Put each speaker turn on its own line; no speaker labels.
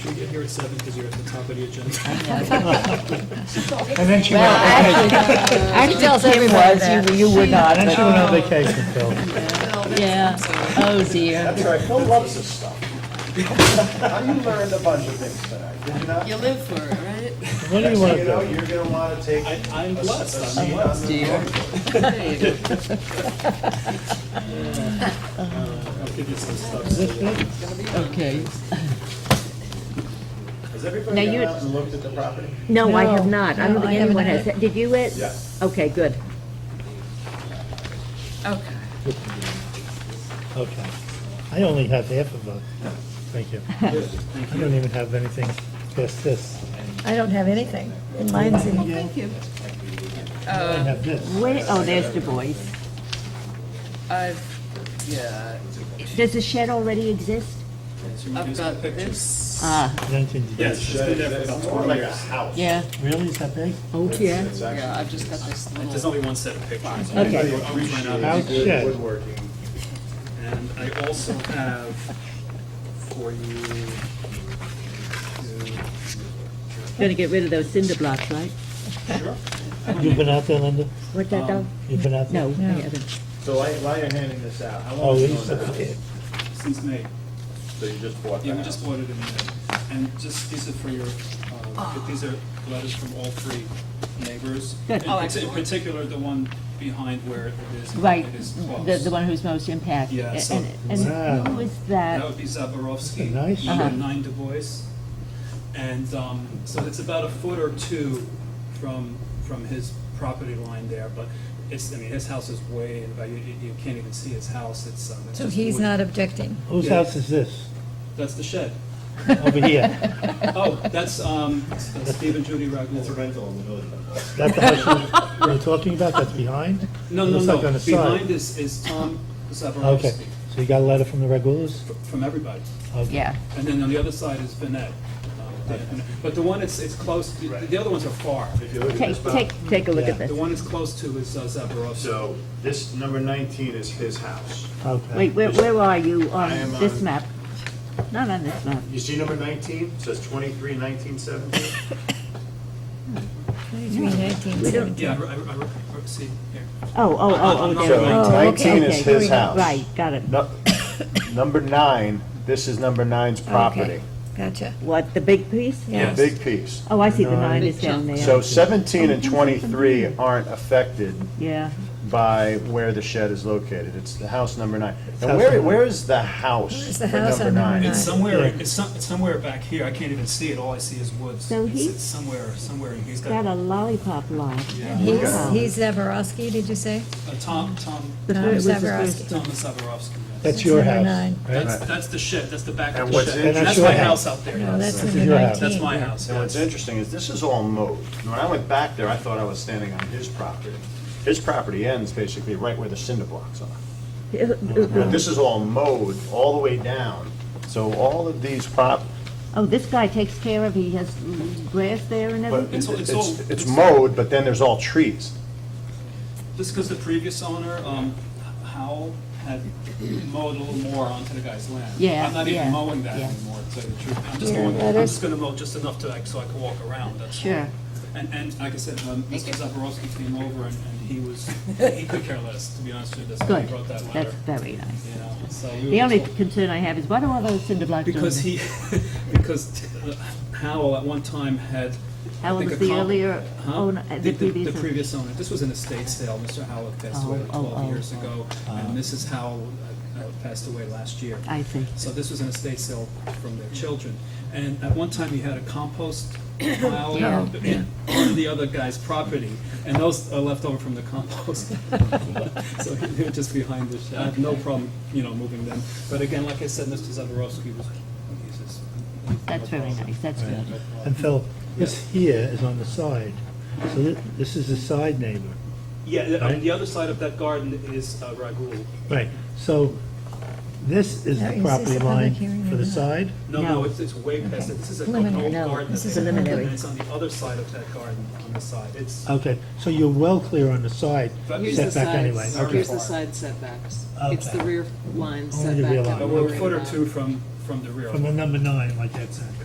at seven because you're at the top of the agenda.
And then she went
Well,
on
actually,
vacation.
actually,
Kim
Kim
was,
was,
you, you would not,
And then she went
but
on vacation, Phil.
yeah, oh dear.
That's right, Phil loves this stuff. You learned a bunch of things tonight, did you not?
You live for it, right?
What do
Next
you
thing
want to
you know,
do?
you're gonna wanna take.
I- I'm
a s-
blessed,
a
I'm
seat on
blessed.
the
Dear.
board.
There you go.
Uh, I'll give you some stuff. so you'll-
okay.
Has
Now
everybody
you-
gone out and looked at the property?
No, I have
No.
not, I don't think anyone has, did you it?
Yeah.
Okay, good.
Okay.
Okay. I only have half of a, thank you. I don't even have anything past this.
I don't have anything, and mine's in here.
Thank you.
I have this.
Where, oh, there's Du Bois.
I've, yeah,
Does the shed already exist?
I've got this.
Ah,
Nineteen degrees.
Yes, she's been there for about
It's
twenty
more like a
years.
house.
yeah,
Really, is that big?
oh, yeah.
It's actually
Yeah, I've just got this
There's
little.
only one set of pictures.
Okay.
I went out
House
really good
shed.
woodworking.
And I also have for you,
Gonna get rid of those cinder blocks, right?
You've been out there, Linda?
What's that, though?
You've been out there?
No, I haven't.
So why, why you're handing this out? How
Oh,
long
it's
has it
a
been out?
kid.
since May,
So you just bought
yeah, we
that?
just ordered in May. And just, these are for your, uh, these are letters from all three neighbors.
Good.
In
Oh,
parti-
excellent.
In particular, the one behind where it is,
Right,
it is
the,
closed.
the one who's most impacted.
Yeah, so-
And, and who
Wow.
is
That
that?
would be Zabarovsky,
Nice.
number
Uh-huh.
nine Du Bois. And um, so it's about a foot or two from, from his property line there, but it's, I mean, his house is way, in- you, you you can't even see his house, it's. um, it's
So
just
he's
wood.
not objecting.
Whose
Yeah.
house is this?
That's the shed.
Over here.
Oh, that's um, Steve and Judy
It's a
Ragul.
rental in the village.
That's the house you were talking about, that's behind?
No,
It
no,
looks
no,
like on the side.
behind is, is Tom
Okay,
Zabarovsky,
so you got a letter from the Regulus?
from everybody.
Okay.
Yeah,
And then on the other side is Vinette. Um, Dan- But the one that's, it's close, the the other ones are far.
If you look at this
take,
box-
take, take a look at
Yeah.
The
this.
one that's close to is uh, Zabarovsky.
So this number 19 is his house.
Okay.
Wait, where, where are you
I am
on this
on-
map? Not on this map.
You see number 19? Says 23, 19, 17?
23, 19,
We don't-
17.
Yeah, I, I, I- I- see, here.
Oh, oh, oh, oh, there
So
it is.
Oh, okay,
19
okay.
is his house.
Right, got it.
No- Number nine, this is number nine's property,
Okay, Gotcha.
What, the big piece?
the
Yes.
big piece.
Oh, I see, the nine is down
So
there.
17 and 23 aren't affected
Yeah,
by where the shed is located. It's the house number nine. And
House
where,
number-
where is the house?
Where's the
for
house on number
It's
nine?
somewhere, it's some, it's somewhere back here, I can't even see it, all I see is woods.
So
It's-
he-
It's somewhere, somewhere, and he's
got
got,
a
uh,
lollipop lot.
Yeah.
He's,
Wow.
he's Zaborowski, did you say?
Tom, Tom,
The
Tom
fir- it was the
Zaborowski.
first-
Tom Zabarovsky. yes.
That's your
Number
house,
nine.
right?
That's, that's the shed, that's the back of
And
the
what's
shed. And that's
interesting-
my house out there.
No, Oh, that's
This is
number
your house.
19.
That's my house,
And what's
yes.
interesting is this is all mowed. When I went back there, I thought I was standing on his property. His property ends basically right where the cinder blocks are. But This is all mowed all the way down. So all of these prop,
Oh, this guy takes care of, he has grass there and
but
everything?
it's,
It's all- it's all-
it's mowed, but then there's all trees.
Just because the previous owner, um, Howell, had mowed a little more onto the guy's land.
Yeah,
I'm not
yeah,
even mowing that
yeah.
anymore, to tell you the truth. I'm just
Yeah,
going, I'm
that is-
just gonna mow just enough to, like, so I can walk around, that's all.
Sure.
And, and like I said, um, Mr. Zaborowski came over and, and he was, he could care less, to be honest with you, that's why he
Good,
brought that
that's
letter.
very nice.
You know, so we were
The only
just-
concern I have is what are all those cinder blocks doing?
Because
there?
he, because uh, Howell at one time had, I
Howell
think,
was
a
the
comp-
earlier
Huh?
owner- uh, the previous
The
owner.
previous owner, this was an estate sale, Mr. Howell passed
Oh,
away like
oh, oh.
twelve years ago, and Mrs. Howell uh, uh, passed away last year.
I see.
So this was an estate sale from their children, and at one time he had a compost pile
Yeah,
in- on the other guy's property, and those are left over from the compost. So he- they're just behind the shed, I have no problem, you know, moving them, but again, like I said, Mr. Zaborowski was, he's just.
That's very nice, that's
Yeah,
good.
no problem.
And Phil, this here is on the side, so thi- this is the side neighbor.
Yeah, the- on
Right?
the other side of that garden is uh, Ragul.
Right, so this is the
Now, is this a
property
public
line
hearing
for
or
the
not?
side?
No,
No.
no, it's, it's way past it. This is a an
Preliminary.
old
No,
garden.
this
that
is
they have,
preliminary.
And it's on the other side of that garden, on the side. It's,
Okay, so you're well clear on the side
But
Here's the
setback anyway.
sides,
Okay.
here's the side setbacks. It's
Okay.
the rear line
Only the
setback
rear
that
line.
but
we're
we're a
worried
foot or
about.
two from, from the rear.
From the number nine, like that said.